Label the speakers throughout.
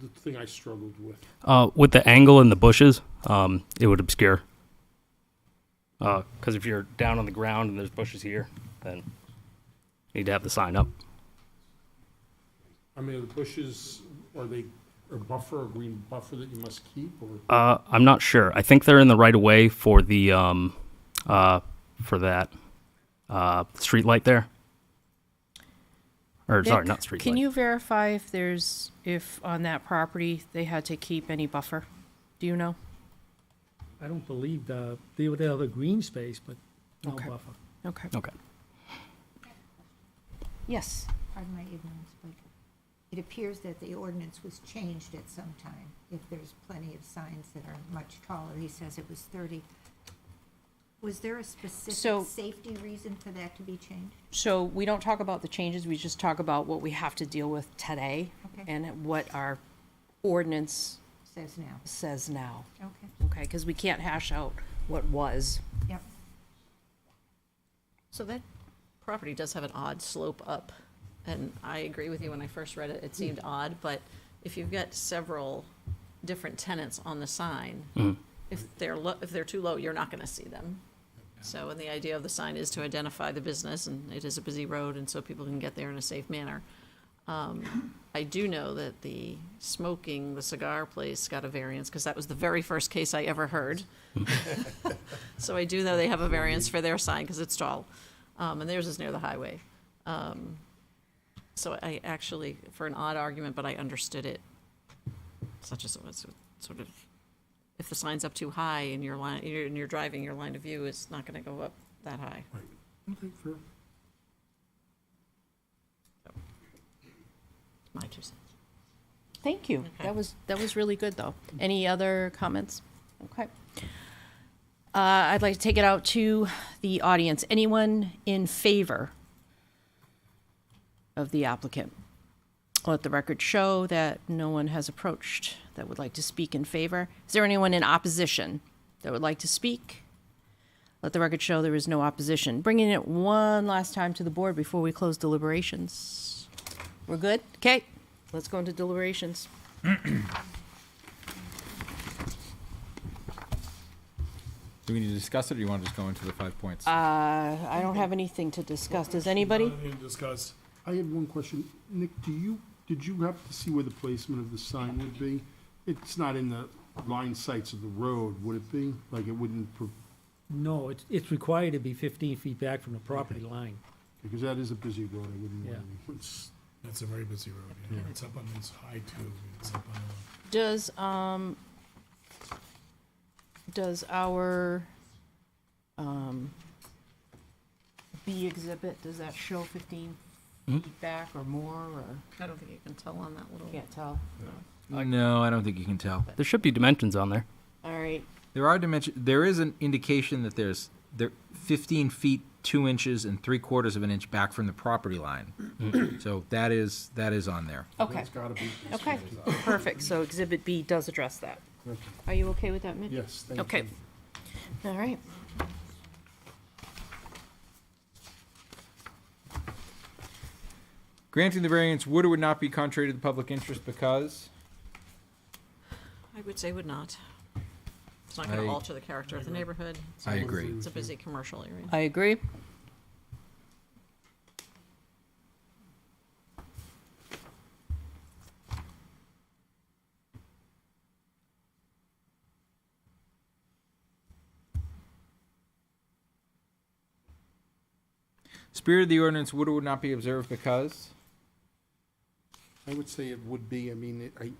Speaker 1: the thing I struggled with.
Speaker 2: Uh, with the angle and the bushes, um, it would obscure. Because if you're down on the ground and there's bushes here, then you need to have the sign up.
Speaker 1: I mean, are the bushes, are they a buffer, a green buffer that you must keep, or?
Speaker 2: Uh, I'm not sure. I think they're in the right of way for the um, uh, for that uh, street light there. Or sorry,
Speaker 3: Nick,
Speaker 2: not street
Speaker 3: Can
Speaker 2: light.
Speaker 3: you verify if there's, if on that property, they had to keep any buffer? Do you know?
Speaker 4: I don't believe the, they would have a green space, but no
Speaker 3: Okay.
Speaker 4: buffer.
Speaker 3: Okay.
Speaker 2: okay.
Speaker 3: Yes.
Speaker 5: pardon my ignorance, but it appears that the ordinance was changed at some time, if there's plenty of signs that are much taller. He says it was 30. Was there a
Speaker 3: So-
Speaker 5: specific safety reason for that to be changed?
Speaker 3: So we don't talk about the changes, we just talk about what we have to deal with today
Speaker 5: Okay.
Speaker 3: and what our ordinance
Speaker 5: Says now.
Speaker 3: says now.
Speaker 5: Okay,
Speaker 3: Okay, because we can't hash out what was.
Speaker 5: yep.
Speaker 6: So that property does have an odd slope up, and I agree with you, when I first read it, it seemed odd, but if you've got several different tenants on the sign, if they're lo, if they're too low, you're not gonna see them. So, and the idea of the sign is to identify the business, and it is a busy road, and so people can get there in a safe manner. Um, I do know that the smoking, the cigar place got a variance, because that was the very first case I ever heard. So I do know they have a variance for their sign because it's tall, um, and theirs is near the highway. Um, so I actually, for an odd argument, but I understood it. Such as it was sort of, if the sign's up too high and your line, you're, and you're driving, your line of view is not going to go up that high.
Speaker 1: Okay, fair.
Speaker 6: My two cents.
Speaker 3: Thank you. That was, that was really good, though. Any other comments? Okay. Uh, I'd like to take it out to the audience. Anyone in favor of the applicant? Let the record show that no one has approached that would like to speak in favor. Is there anyone in opposition that would like to speak? Let the record show there is no opposition. Bringing it one last time to the board before we close deliberations. We're good? Okay, let's go into deliberations.
Speaker 7: Do we need to discuss it, or do you want to just go into the five points?
Speaker 3: I don't have anything to discuss. Does anybody?
Speaker 8: Anything to discuss?
Speaker 1: I had one question. Nick, do you, did you happen to see where the placement of the sign would be? It's not in the line sights of the road, would it be? Like, it wouldn't,
Speaker 4: No, it's, it's required to be fifteen feet back from the property line.
Speaker 1: because that is a busy road, I wouldn't
Speaker 4: want Yeah.
Speaker 8: That's a very busy road, yeah. It's up on this high too. It's up on
Speaker 3: Does, um, does our, um, B exhibit, does that show fifteen feet back or more, or,
Speaker 6: I don't think you can tell on that little.
Speaker 3: can't tell?
Speaker 7: no, I don't think you can tell.
Speaker 2: There should be dimensions on there.
Speaker 3: All right,
Speaker 7: There are dimension. There is an indication that there's there 15 feet two inches and three quarters of an inch back from the property line. so that is that is on there.
Speaker 3: okay,
Speaker 1: It's gotta be.
Speaker 3: okay, perfect, so exhibit B does address that. Are you okay with that, Mitch?
Speaker 1: Yes, thank you.
Speaker 3: Okay. All right.
Speaker 7: Granting the variance would or would not be contrary to the public interest because
Speaker 6: I would say would not. It's not going
Speaker 7: I-
Speaker 6: to alter the character of the neighborhood.
Speaker 7: I agree.
Speaker 6: It's a busy commercial area.
Speaker 3: I agree.
Speaker 7: Spirit of the ordinance would or would not be observed because
Speaker 1: I would say it would be, I mean, it- I,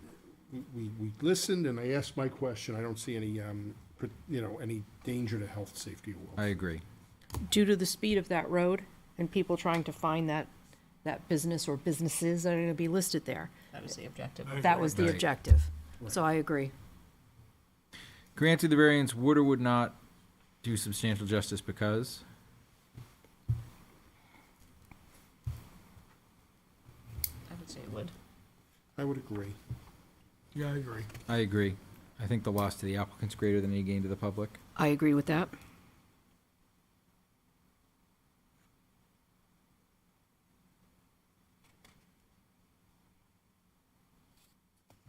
Speaker 1: we- we, we listened and I asked my question. I don't see any, um, pr- you know, any danger to health, safety or
Speaker 7: I
Speaker 1: welfare.
Speaker 7: agree.
Speaker 3: due to the speed of that road and people trying to find that, that business or businesses that are gonna be listed there.
Speaker 6: That was the objective.
Speaker 3: That was the
Speaker 7: Right.
Speaker 3: objective. So I agree.
Speaker 7: Granted, the variance would or would not do substantial justice because
Speaker 6: I would say it would.
Speaker 1: I would agree.
Speaker 8: the, yeah, I agree.
Speaker 7: I agree. I think the loss to the applicant's greater than any gain to the public.
Speaker 3: I agree with that.